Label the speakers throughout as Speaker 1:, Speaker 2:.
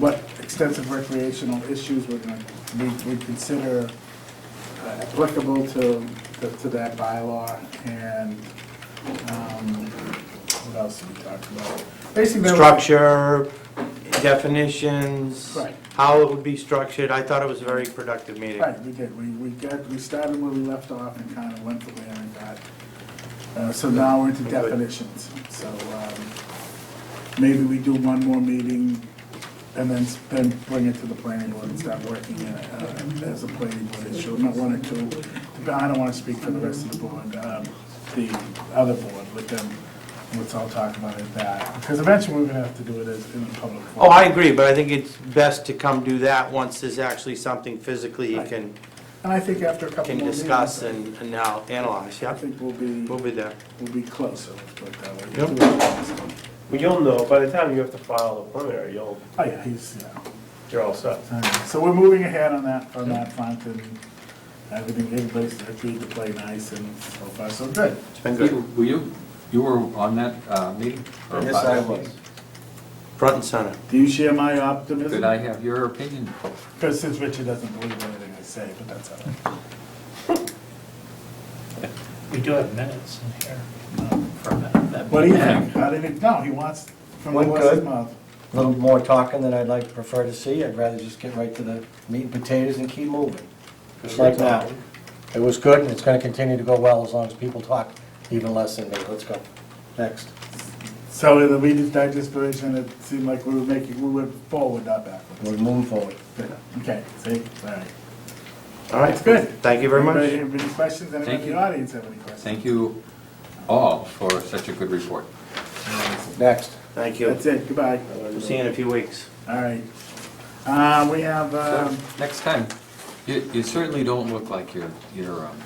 Speaker 1: what extensive recreational issues we're gonna, we, we consider uh, applicable to, to- to that bylaw and, um, what else did we talk about? Basically, there were-
Speaker 2: Structure, definitions,
Speaker 1: Right.
Speaker 2: how it would be structured. I thought it was a very productive meeting.
Speaker 1: Right, we did, we, we got, we started where we left off and kind of went from there and got, uh, so now we're into definitions. So, um, maybe we do one more meeting and then, s- then bring it to the planning board and start working it, uh, as a planning board issue, not one or two. But I don't wanna speak for the rest of the board, um, the other board, let them, let's all talk about it that. Because eventually we're gonna have to do it as, in a public
Speaker 2: Oh,
Speaker 1: forum.
Speaker 2: I agree, but I think it's best to come do that once there's actually something physically you
Speaker 1: Right.
Speaker 2: can,
Speaker 1: And I think after a couple
Speaker 2: can
Speaker 1: more meetings.
Speaker 2: discuss and and now analyze,
Speaker 1: I
Speaker 2: yeah.
Speaker 1: think we'll be.
Speaker 2: We'll be there.
Speaker 1: will be closer, let's put it that way.
Speaker 2: Yep.
Speaker 3: Well, you'll know, by the time you have to file the preliminary, you'll,
Speaker 1: Oh, yeah, he's, yeah.
Speaker 3: you're all set.
Speaker 1: All right, So we're moving ahead on that, on that front, and everything, everybody's agreed to play nice, and so far, so good.
Speaker 2: It's been
Speaker 4: Peter,
Speaker 2: good.
Speaker 4: were you, you were on that uh, meeting? or
Speaker 5: Yes,
Speaker 4: about
Speaker 5: I
Speaker 4: that
Speaker 5: was.
Speaker 4: meeting?
Speaker 2: Front and center.
Speaker 1: Do you share my optimism?
Speaker 4: Could I have your opinion?
Speaker 1: Because since Richard doesn't believe anything I say, but that's all right.
Speaker 5: We do have minutes in here um, for a minute. that-
Speaker 1: What do you think? How did it, no, he wants, from the
Speaker 5: Went
Speaker 1: horse's
Speaker 5: good.
Speaker 1: mouth.
Speaker 5: A little more talking than I'd like, prefer to see. I'd rather just get right to the meat and potatoes and keep moving. Just like now. It was good and it's gonna continue to go well as long as people talk even less than me. Let's go. Next.
Speaker 1: So in the Reader's Digest version, it seemed like we were making, we went forward, not
Speaker 5: We're
Speaker 1: backwards.
Speaker 5: moving forward.
Speaker 1: Okay, see, all right.
Speaker 2: All right.
Speaker 1: That's good.
Speaker 2: Thank you very much.
Speaker 1: Anybody have any questions? Anybody in
Speaker 4: you.
Speaker 1: the audience have any questions?
Speaker 4: Thank you all for such a good report.
Speaker 5: Next.
Speaker 2: Thank you.
Speaker 1: That's it, goodbye.
Speaker 2: We'll see you in a few weeks.
Speaker 1: All right. Uh, we have, um,
Speaker 4: Next time, you you certainly don't look like your, your, um,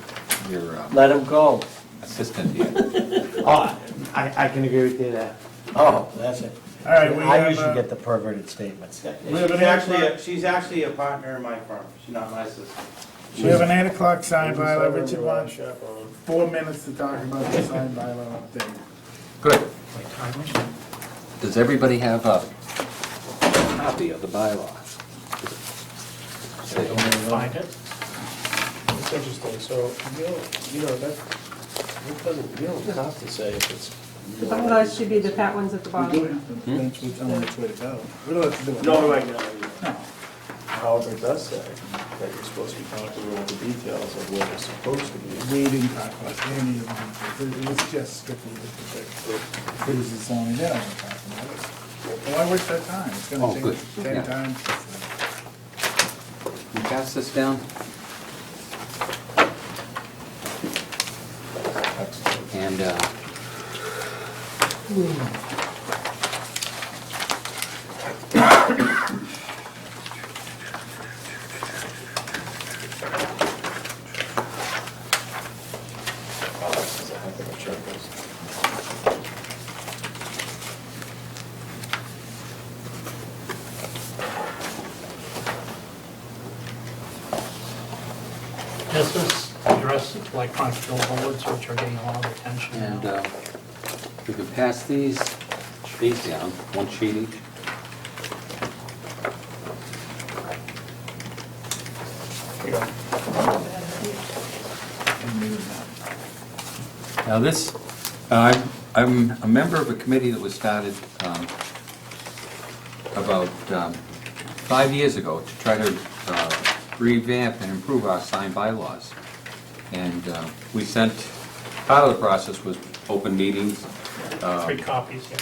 Speaker 4: your um,
Speaker 5: Let him go.
Speaker 4: assistant here.
Speaker 2: Oh, I, I can agree with you there.
Speaker 5: Oh, that's it.
Speaker 1: all right, we
Speaker 5: I
Speaker 1: have,
Speaker 5: usually
Speaker 1: uh,
Speaker 5: get the perverted statements.
Speaker 1: We have an actually-
Speaker 2: a- she's actually a partner in my firm. She's not my sister.
Speaker 1: we have an eight o'clock sign bylaw. Richard wants
Speaker 3: Chaperone.
Speaker 1: four minutes to talk about the sign bylaw update.
Speaker 4: Good. Does everybody have a copy of the bylaw?
Speaker 5: Find it.
Speaker 3: It's interesting, so you don't, you know, that, it doesn't, you don't have to say if it's.
Speaker 6: Well, those should be the fat ones at the
Speaker 1: We do
Speaker 6: bottom.
Speaker 1: have to eventually tell them which way to go. We don't have to do it.
Speaker 3: No, right now.
Speaker 1: No.
Speaker 3: However, it does say that you're supposed to be talking about the details of what it's supposed to
Speaker 1: We
Speaker 3: be.
Speaker 1: didn't talk about any of them. It was just strictly with the thing. It was just only that I was talking about. Well, I waste that time. It's
Speaker 4: Oh,
Speaker 1: gonna
Speaker 4: good.
Speaker 1: take ten
Speaker 4: Yeah.
Speaker 1: times.
Speaker 4: Can you pass this down? And, uh,
Speaker 3: Oh, this is a heck of a checklist.
Speaker 7: This is addressed like constable bullets, which are getting a lot of attention
Speaker 4: and
Speaker 7: now.
Speaker 4: uh, we can pass these, these down, one sheet each. Now, this, uh, I'm, I'm a member of a committee that was started um, about um, five years ago to try to uh, revamp and improve our sign bylaws. And uh, we sent, part of the process was open meetings,
Speaker 7: Three copies here,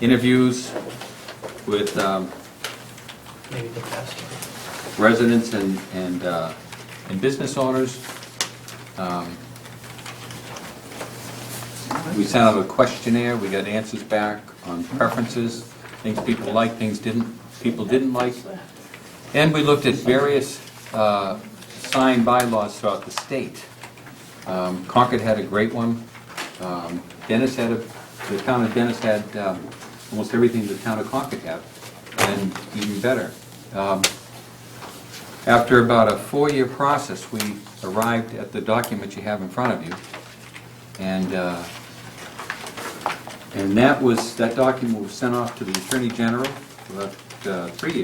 Speaker 4: interviews with um,
Speaker 7: maybe the best.
Speaker 4: residents and, and, uh, and business owners. Um, We sent out a questionnaire, we got answers back on preferences, things people liked, things didn't, people didn't like. And we looked at various uh, sign bylaws throughout the state. Um, Concord had a great one. Um, Dennis had a, the town of Dennis had um, almost everything the town of Concord had, and even better. Um, after about a four-year process, we arrived at the document you have in front of you. And, uh, and that was, that document was sent off to the Attorney General about uh, three years